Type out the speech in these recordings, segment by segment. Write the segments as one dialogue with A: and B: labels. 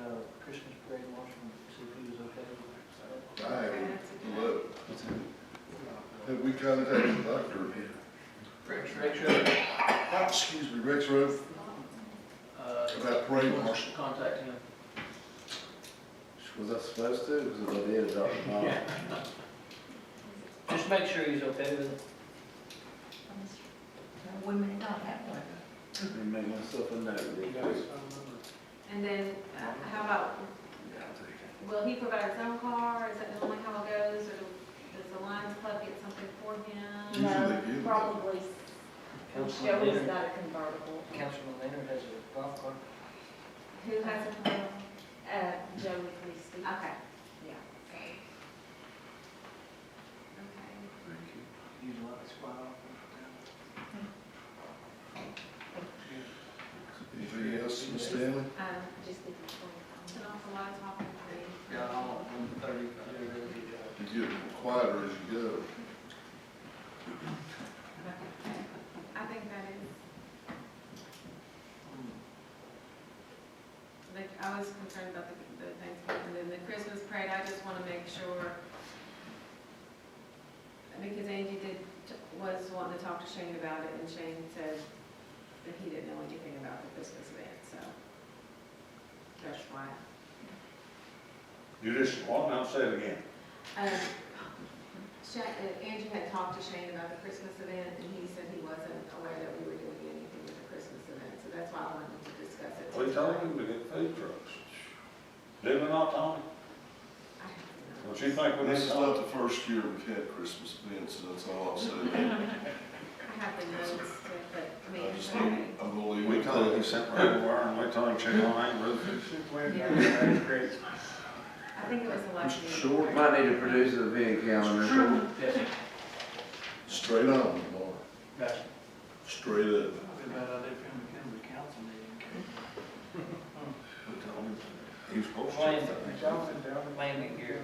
A: uh, Christmas parade in Washington, see if he was okay.
B: I would love to. Have we contacted Dr.
A: Rick's, Rick's, uh,
B: Ah, Excuse me, Rex Rowe about parade
A: wants
B: marshal?
A: to uh, contact him.
C: Was I supposed to? Because I did adopt a mom.
A: Just make sure he's okay with it.
D: Women don't have one.
C: Let me make myself a note real quick.
E: And then, uh, how about, will he provide his own car? Is that normally how it goes? Or does the Lions Club get something for him?
B: Usually
F: No,
B: they do.
F: probably,
A: Councilman
F: Joey's
A: Leonard,
F: got a convertible,
A: Councilman Leonard has a golf cart.
E: Who has a car?
F: uh, Joey Christie.
E: Okay.
F: Yeah.
E: Okay.
A: He's a lot of spot off.
B: Anything else, Ms. Stanley?
E: Um,
F: Just give me twenty-five.
E: Turn off the lights, off the
A: Yeah, I'll, I'm thirty, I did a really good job.
B: You get quieter as you go.
E: Okay. I think that is, like, I was concerned about the, the Thanksgiving, and then the Christmas parade, I just wanna make sure. Because Angie did, was wanting to talk to Shane about it, and Shane said that he didn't know anything about the Christmas event, so. That's why.
G: You just, what, now say it again.
E: Um, Sha- uh, Angie had talked to Shane about the Christmas event, and he said he wasn't aware that we were doing anything with the Christmas event, so that's why I wanted to discuss it.
G: We told him to get food trucks. Did we not, Tommy?
E: I have to know.
G: Don't you think we
B: This is
G: did not?
B: not the first year we've had Christmas events, so that's all I'll say.
E: I have the notes, to- but, I mean,
B: I
E: it's
B: just
E: okay.
B: need, I'm gonna leave.
G: We
B: it
G: told him
B: there.
G: he sent right over and we told him check on that roof.
E: I think it was a lucky.
B: Mr. Short?
C: Might need to produce a event calendar.
A: Yes,
B: Straight on, Laura.
A: gotcha.
B: Straight up.
A: Probably a bad idea for him to come to the council meeting.
G: We told him He was supposed to. check that.
A: Landing, landing gear,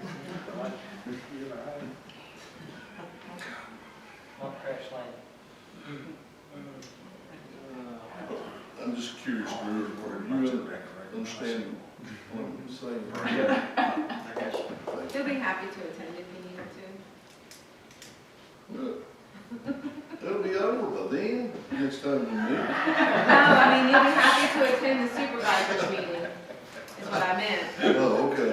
A: not crash Mm-hmm. landing.
B: I'm just curious, Drew,
G: Worried
B: were
G: about
B: you uh,
G: that record.
B: understanding what I'm saying?
A: Yeah, I guess.
E: He'll be happy to attend if he needed to.
B: Look, It'll be over by then, next time we meet.
E: No, I mean, he'll be happy to attend the supervisor's meeting, is what I meant.
B: Oh, okay.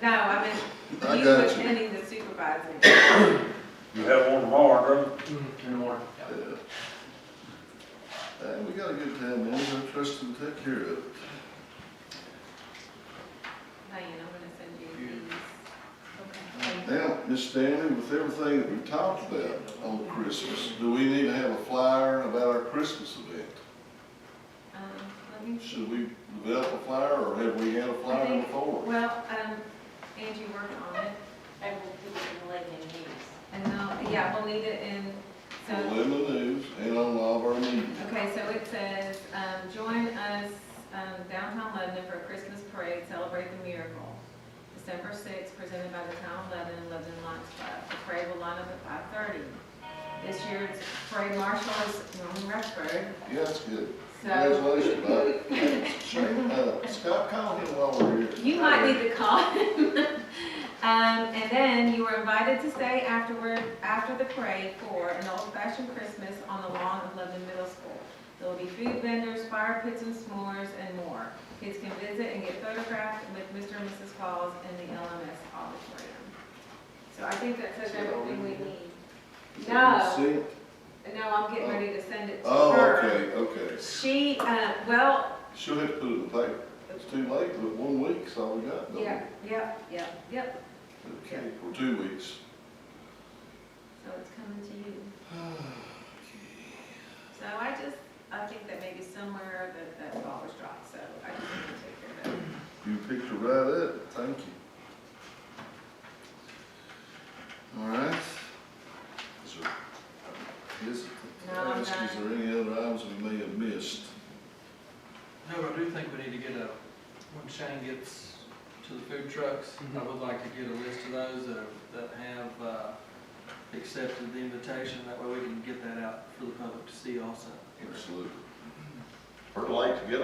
E: No, I meant,
B: I
E: he's
B: got you.
E: attending the supervisor.
G: You have one tomorrow, brother?
A: In the morning.
B: Yeah. And we got a good time, man. I trust them to take care of it.
E: Diane, I'm gonna send you these.
B: Now, Miss Stanley, with everything that we talked about on Christmas, do we need to have a flyer about our Christmas event?
E: Um, let me see.
B: Should we develop a flyer or have we had a flyer before?
E: Well, um, Angie worked on it,
F: I will put it in the late in news.
E: and now, yeah, we'll need it in,
B: On
E: so,
B: Lebanon News and on all of our media.
E: okay, so it says, um, join us, um, downtown Lebanon for a Christmas parade, celebrate the miracle. December sixth, presented by the town of Lebanon, Lebanon Lions Club. The parade will line up at five thirty. This year's parade marshal is Norman Rushford,
B: Yeah, that's good.
E: so
B: Congratulations, buddy. Shane, uh, Scott, call him while we're here.
E: You might need to call him. Um, and then you were invited to stay afterward, after the parade for an old-fashioned Christmas on the lawn of Lebanon Middle School. There will be food vendors, fire pits and s'mores and more. Kids can visit and get photographed with Mr. and Mrs. Falls in the LMS auditorium. So I think that says everything we need.
B: Is that
E: No.
B: good to see?
E: No, I'm getting ready to send it to her.
B: Oh, okay, okay.
E: She, uh, well,
B: She'll have to put it in the paper. It's too late, but one week's all we got, don't we?
E: yeah, yep, yep, yep.
B: Okay, or two weeks.
E: So it's coming to you. So I just, I think that maybe somewhere that, that ball was dropped, so I just need to take care of that.
B: You picked it right up, thank you. All right. Is there, is,
E: No, I'm
B: ask, is
E: done.
B: there any other items we may have missed?
H: No, but I do think we need to get a, when Shane gets to the food trucks, I would like to get a list of those that, are- that have, uh, accepted the invitation, that way we can get that out for the public to see also.
B: Absolutely.
G: We're late to get